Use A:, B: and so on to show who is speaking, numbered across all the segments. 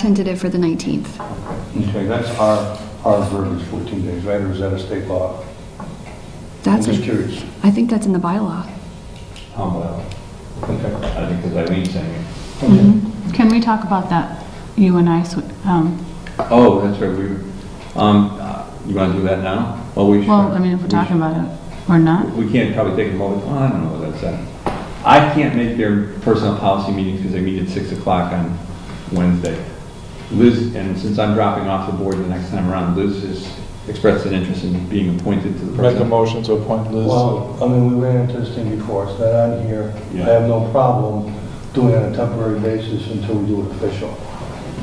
A: Tentative for the 19th.
B: Okay, that's our, our verbiage, 14 days, right, or is that a state law? I'm
A: That's,
B: just
A: a-
B: curious.
A: I think that's in the bylaw.
C: Humble.
B: Okay.
C: I think because Irene's saying it.
D: Can we talk about that, you and I, so- um,
C: Oh, that's right, we, um, uh, you want to do that now? Well, we should.
D: well, I mean, if we're
C: we
D: talking about it or not?
C: should- We can't probably take a moment, well, I don't know what that's at. I can't make their personal policy meetings because they meet at 6 o'clock on Wednesday. Liz, and since I'm dropping off the board the next time around, Liz has expressed an interest in being appointed to the
E: Make a
C: person.
E: motion to appoint Liz.
B: Well, I mean, we ran into this thing before, it's not on here. I
C: Yeah.
B: have no problem doing it on a temporary basis until we do it official.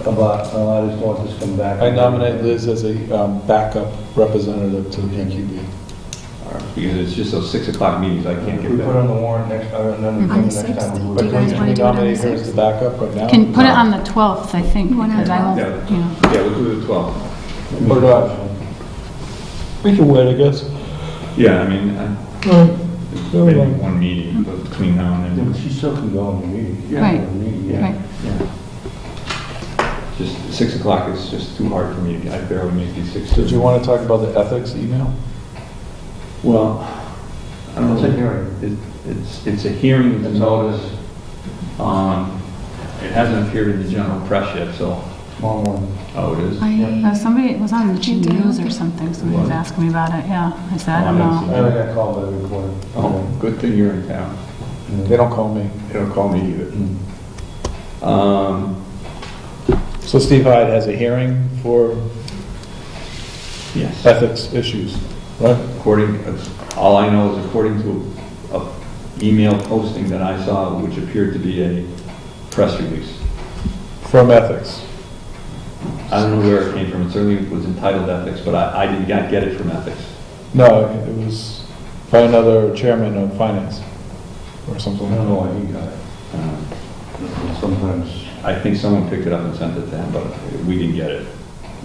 B: About, uh, I just want this to come back.
E: I nominate Liz as a um, backup representative to the PQB.
C: Because it's just those 6 o'clock meetings, I can't
B: If
C: get
B: we put
C: that.
B: on the warrant next, or on the
A: On the
B: next time.
A: 6th,
B: we'll
A: do
B: do
A: you
B: it.
A: guys
E: Can
A: wanna
E: we
A: do it on the
E: nominate her as
A: sixth?
E: the backup right now?
D: Can, put it on the 12th, I think,
A: You wanna
D: because I
A: have
D: won't, you know.
C: Yeah, we'll do the 12.
E: What
B: uh,
E: about- We can wait, I guess.
C: Yeah, I mean, I-
E: Never
C: maybe
E: mind.
C: one meeting but between now and
B: Yeah,
C: then.
B: but she still can go on the meeting.
C: Yeah.
D: Right.
B: Meeting, yeah.
D: Right.
C: Just, six o'clock is just too hard for me, I barely make these six.
E: Did you want to talk about the ethics email?
C: Well, I don't
B: It's a
C: know,
B: hearing.
C: It- it's, it's a hearing, it's
B: It's
C: a notice,
B: always
C: um, it hasn't appeared in the general press yet, so,
B: small one.
C: oh, it is?
A: I,
D: Uh, Somebody, it was on the
A: Can't do it.
D: news or something, somebody was
C: What?
D: asking me about it, yeah, I said, I
C: Oh,
D: don't
C: I
D: know.
C: see.
B: I already got called by the recorder.
C: Oh, good thing you're in town,
E: They don't call me.
C: they don't call me
B: Mm.
C: either. Um,
E: So Steve Hyde has a hearing for
C: yes,
E: ethics issues, right?
C: according, all I know is according to a email posting that I saw, which appeared to be a press release.
E: From ethics.
C: I don't know where it came from, it certainly was entitled ethics, but I, I did not get it from ethics.
E: No, it was by another chairman of finance or
B: I
E: something.
B: don't know why he got
C: Um,
B: it. Sometimes.
C: I think someone picked it up and sent it to him, but we didn't get it.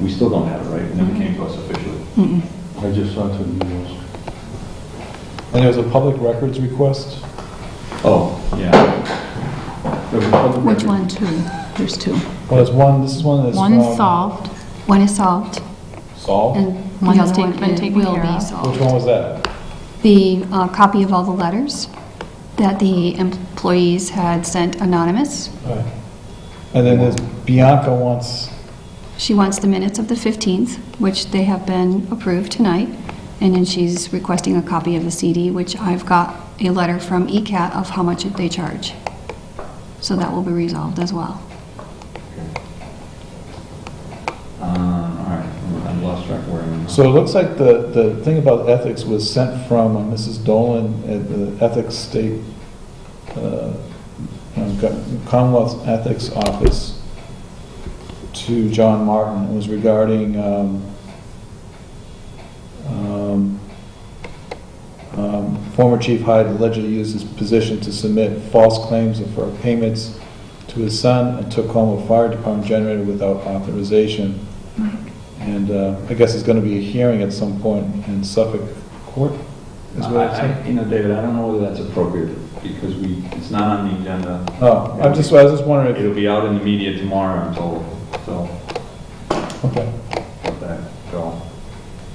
C: We still don't have it, right? It never
A: Mm-hmm.
C: came to us officially.
D: Mm-mm.
B: I just saw two emails.
E: And it was a public records request.
C: Oh, yeah. There was a public
A: which
C: record.
A: one, two? There's two.
E: Well, there's one, this is one that's from...
D: One solved,
A: One is solved,
E: Saul?
A: and the
D: One has
A: other
D: taken-
A: one
D: been
A: it
D: taken
A: will
D: care
A: be
D: of.
E: Which
A: solved.
E: one was that?
A: The uh, copy of all the letters that the employees had sent anonymous.
E: Right. And then there's Bianca wants,
A: She wants the minutes of the 15th, which they have been approved tonight, and then she's requesting a copy of the CD, which I've got a letter from ECAT of how much they charge. So that will be resolved as well.
C: Um, all right, I lost track of where I'm at.
E: so it looks like the, the thing about ethics was sent from Mrs. Dolan at the Ethics State, uh, um, Commonwealth Ethics Office to John Martin. It was regarding, um, um, um, former Chief Hyde allegedly used his position to submit false claims for payments to his son and took home a fire department generator without authorization. And uh, I guess there's going to be a hearing at some point in Suffolk Court, is what it
C: I-
E: said.
C: I- You know, David, I don't know whether that's appropriate because we, it's not on the agenda.
E: Oh, I'm just, I was just wondering
C: It'll be out in the media tomorrow, I'm told, so
E: if, okay.
C: let that go.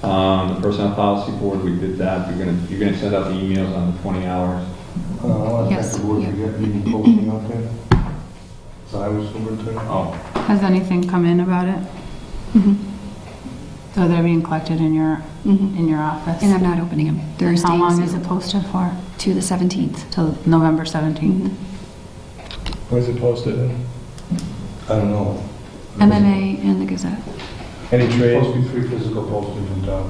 C: Um, the Personnel Policy Board, we did that. You're gonna, you're gonna send out the emails on the 20 hours.
B: Uh, I want to thank
A: Yes,
B: the board
A: yeah.
B: for getting me posting out there. So I was superintendent.
C: Oh,
D: has anything come in about it?
A: Mhm.
D: So they're being collected in your,
A: Mhm.
D: in your office?
A: And I'm not opening them.
D: And
A: Thursday
D: How long is it posted for?
A: to the Mm-hmm. 17th.
D: Till November 17th?
E: Where's it posted?
B: I don't know.
A: MMA and the Gazette.
E: Any
B: There's
E: trade?
B: supposed to be three physical postings in town.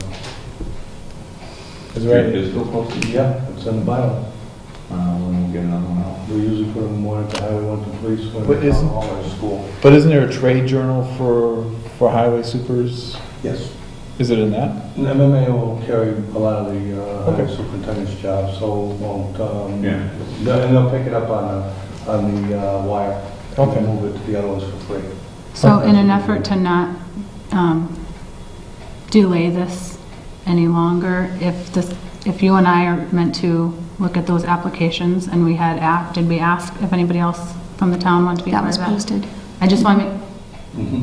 E: Is there
C: Great,
E: any-
C: there's still posted?
B: Yeah, it's in the bio.
C: Uh, when we get another one out.
B: We usually put them one at the highway, one at the police, one
E: But
B: at the town
E: isn't-
B: hall or school.
E: But isn't there a trade journal for, for highway supers?
B: Yes.
E: Is it in that?
B: And MMA will carry a lot of the uh, highway
E: Okay.
B: superintendent's jobs, so won't, um,
C: Yeah.
B: they'll- and they'll pick it up on, the- on the uh, wire.
E: Okay.
B: And move it to the other ones for free.
D: So
A: Uh-huh.
B: Okay.
D: in an effort to not um, delay this any longer, if this, if you and I are meant to look at those applications and we had asked, did we ask if anybody else from the town wanted to be
A: That
D: part
A: was
D: of that?
A: posted.
D: I just want to make,
B: Mhm.